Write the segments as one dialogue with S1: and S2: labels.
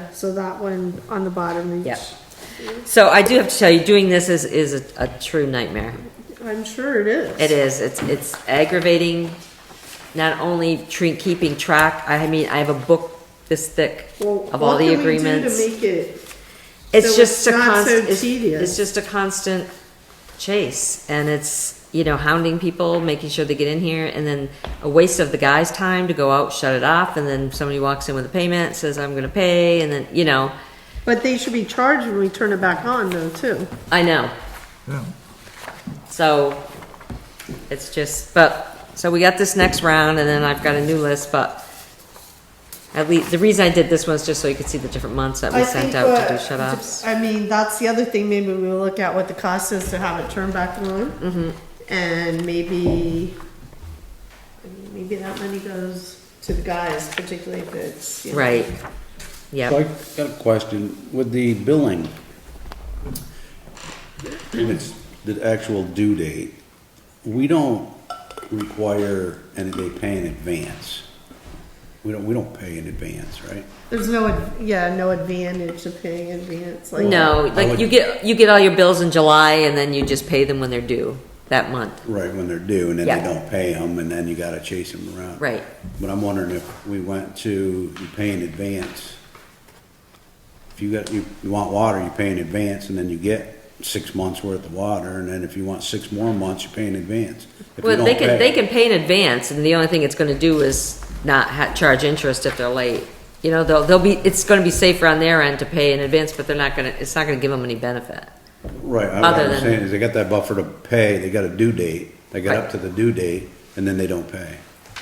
S1: Yeah, so that one on the bottom.
S2: Yep. So I do have to tell you, doing this is, is a, a true nightmare.
S1: I'm sure it is.
S2: It is, it's, it's aggravating, not only tre- keeping track, I mean, I have a book this thick
S1: Well,
S2: of all the
S1: What
S2: agreements.
S1: can we do to make it,
S2: It's
S1: so it's
S2: just a
S1: not so
S2: constant, it's,
S1: tedious?
S2: it's just a constant chase, and it's, you know, hounding people, making sure they get in here, and then a waste of the guy's time to go out, shut it off, and then somebody walks in with a payment, says, I'm gonna pay, and then, you know,
S1: but they should be charged when we turn it back on though, too.
S2: I know.
S3: Yeah.
S2: So it's just, but, so we got this next round and then I've got a new list, but at least, the reason I did this was just so you could see the different months that we
S1: I
S2: sent
S1: think
S2: out to do
S1: what-
S2: shut offs.
S1: I mean, that's the other thing, maybe we'll look at what the cost is to have it turned back on.
S2: Mm-hmm.
S1: And maybe, I mean, maybe that money goes to the guys, particularly if it's, you know.
S2: Right.
S4: So I
S2: Yep.
S4: got a question, with the billing, when it's the actual due date, we don't require any, they pay in advance. We don't, we don't pay in advance, right?
S1: There's no, ad- yeah, no advantage to paying advance, like.
S2: No,
S4: I
S2: like
S4: would-
S2: you get, you get all your bills in July and then you just pay them when they're due that month.
S4: Right, when they're due, and then
S2: Yeah.
S4: they don't pay them, and then you gotta chase them around.
S2: Right.
S4: But I'm wondering if we went to, you pay in advance. If you got, you, you want water, you pay in advance, and then you get six months worth of water, and then if you want six more months, you pay in advance. If you
S2: Well, they
S4: don't
S2: can,
S4: pay-
S2: they can pay in advance and the only thing it's gonna do is not ha- charge interest if they're late. You know, they'll, they'll be, it's gonna be safer on their end to pay in advance, but they're not gonna, it's not gonna give them any benefit.
S4: Right, I-
S2: other
S4: what I'm
S2: than-
S4: saying is they got that buffer to pay, they got a due date, they got
S2: Right.
S4: up to the due date, and then they don't pay.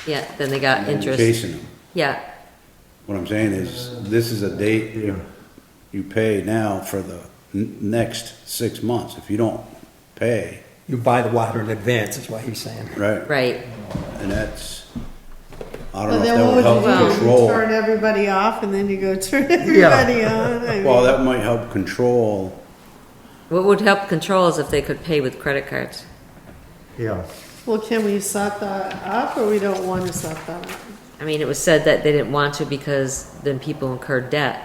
S2: Yeah, then they
S4: And
S2: got
S4: then you're
S2: interest.
S4: Chasing them.
S2: Yeah,
S4: What I'm saying is, this is a date you, you pay now for the n- next six months. If you don't pay,
S5: You buy the water in advance, is what he's saying.
S4: right?
S2: right.
S4: And that's, I
S1: But
S4: don't
S1: then
S4: know
S1: what
S4: if that would
S1: would
S4: help
S1: you do? You
S4: control.
S1: Turn everybody off and then you go turn everybody on? I
S4: Well,
S1: mean,
S4: that might help control,
S2: What would help control is if they could pay with credit cards.
S3: Yeah.
S1: Well, can we set that up or we don't want to set that up?
S2: I mean, it was said that they didn't want to because then people incur debt.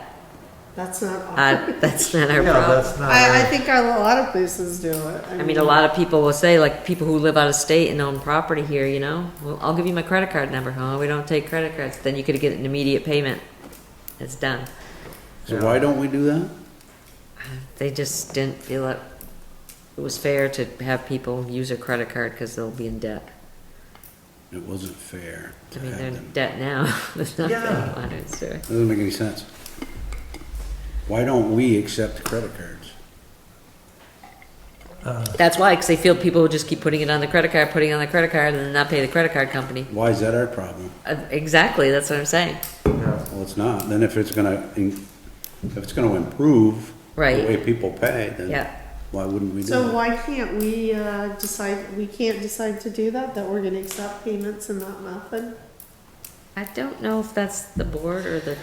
S1: That's not.
S2: Uh, that's not our
S3: Yeah,
S2: problem.
S3: that's not.
S1: I, I
S3: right.
S1: think a lot of places do it.
S2: I mean, a lot of people will say, like, people who live out of state and own property here, you know, well, I'll give you my credit card number. Oh, we don't take credit cards. Then you could get an immediate payment. It's done.
S4: so why don't we do that?
S2: They just didn't feel it, it was fair to have people use their credit card because they'll be in debt.
S4: It wasn't fair
S2: I
S4: to
S2: mean,
S4: have
S2: they're in
S4: them.
S2: debt now. There's nothing
S3: Yeah.
S2: on it, so.
S4: Doesn't make any sense. Why don't we accept credit cards?
S2: That's why, because they feel people will just keep putting it on the credit card, putting it on the credit card, and then not pay the credit card company.
S4: Why is that our problem?
S2: Uh, Exactly, that's what I'm saying.
S3: Yeah.
S4: Well, it's not. Then if it's gonna, in- if it's gonna improve
S2: Right.
S4: the way people pay, then
S2: Yeah.
S4: why wouldn't we do
S1: So
S4: that?
S1: why can't we uh, decide, we can't decide to do that, that we're gonna accept payments in that method?
S2: I don't know if that's the board or the,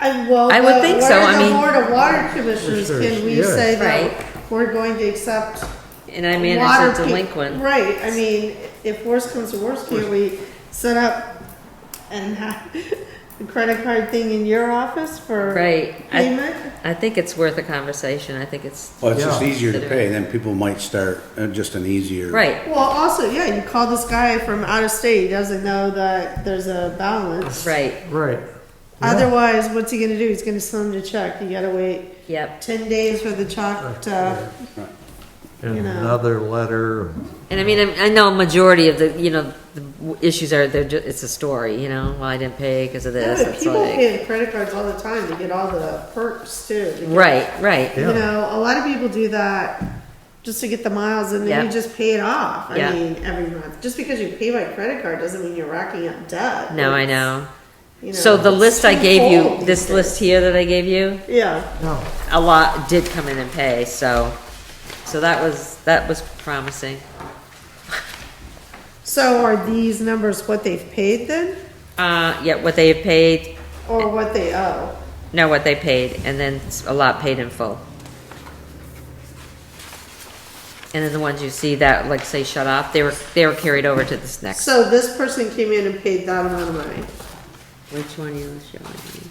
S1: I, well.
S2: I would
S1: the-
S2: think so,
S1: we're
S2: I
S1: the
S2: mean-
S1: Board of Water Commissioners,
S3: Sure,
S1: can we
S3: yeah.
S1: say
S2: Right.
S1: that we're going to accept
S2: and I
S1: water
S2: manage
S1: pe-
S2: a delinquent.
S1: Right, I mean, if worse comes to worse, can we set up and have the credit card thing in your office for?
S2: Right. I-
S1: Payment?
S2: I think it's worth a conversation, I think it's,
S4: Well, it's just
S3: Yeah.
S4: easier to pay, then people might start, uh, just an easier.
S2: right,
S1: Well, also, yeah, you call this guy from out of state, he doesn't know that there's a balance.
S2: right,
S3: Right.
S1: Otherwise, what's he gonna do? He's gonna send him a check. You gotta wait
S2: yep.
S1: ten days for the check to,
S3: And
S1: you know.
S3: another letter.
S2: And I mean, I I know a majority of the, you know, the w- issues are, they're, ju- it's a story, you know, well, I didn't pay because of
S1: yeah,
S2: this,
S1: but
S2: it's
S1: people
S2: like,
S1: pay with credit cards all the time to get all the perks too. to get-
S2: right, right,
S1: You
S3: Yeah.
S1: know, a lot of people do that just to get the miles and then
S2: Yeah.
S1: you just pay it off. I
S2: Yeah.
S1: mean, every month. Just because you pay by credit card doesn't mean you're racking up debt.
S2: no, I
S1: It's,
S2: know.
S1: you
S2: So
S1: know,
S2: the
S1: it's
S2: list I gave you,
S1: twofold
S2: this
S1: these
S2: list here that I gave you,
S1: days. Yeah.
S3: No.
S2: a lot did come in and pay, so, so that was, that was promising.
S1: So are these numbers what they've paid then?
S2: Uh, yeah, what they paid,
S1: Or what they owe?
S2: no, what they paid, and then a lot paid in full. And then the ones you see that, like, say shut off, they were, they were carried over to this next.
S1: So this person came in and paid that amount of money.
S2: Which one you was showing me?